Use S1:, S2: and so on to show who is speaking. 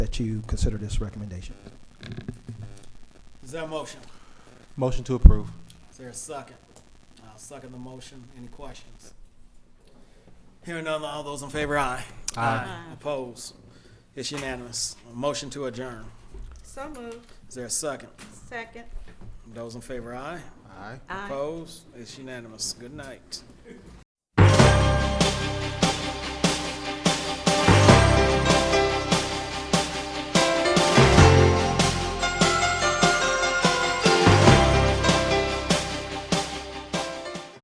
S1: that you consider this recommendation.
S2: Is there a motion?
S3: Motion to approve.
S2: Is there a second? I'll second the motion. Any questions? Hearing none, all those in favor, aye.
S3: Aye.
S2: Opposed? It's unanimous. A Motion to adjourn.
S4: So moved.
S2: Is there a second?
S4: Second.
S2: Those in favor, aye.
S3: Aye.
S4: Aye.
S2: Opposed? It's unanimous. Good night.